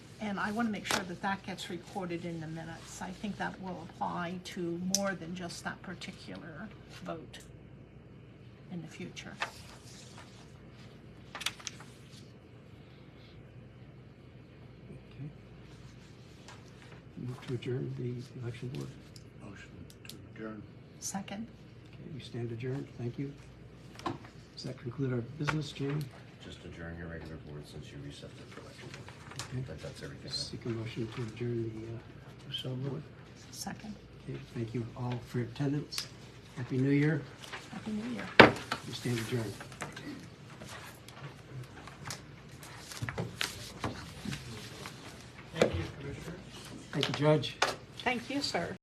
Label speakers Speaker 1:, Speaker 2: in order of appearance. Speaker 1: and I want to make sure that that gets recorded in the minutes. I think that will apply to more than just that particular vote in the future.
Speaker 2: Okay. Move to adjourn the election board.
Speaker 3: Motion to adjourn.
Speaker 1: Second?
Speaker 2: Okay, we stand adjourned, thank you. Does that conclude our business, Jamie?
Speaker 3: Just adjourn your regular board since you reset the election
Speaker 2: Okay.
Speaker 3: board. That, that's everything.
Speaker 2: Seek a motion to adjourn the, uh, so board.
Speaker 1: Second.
Speaker 2: Okay, thank you all for your attendance. Happy New Year,
Speaker 1: Happy New Year.
Speaker 2: we stand adjourned. Thank you, Commissioner. Thank you, Judge.
Speaker 1: Thank you, sir.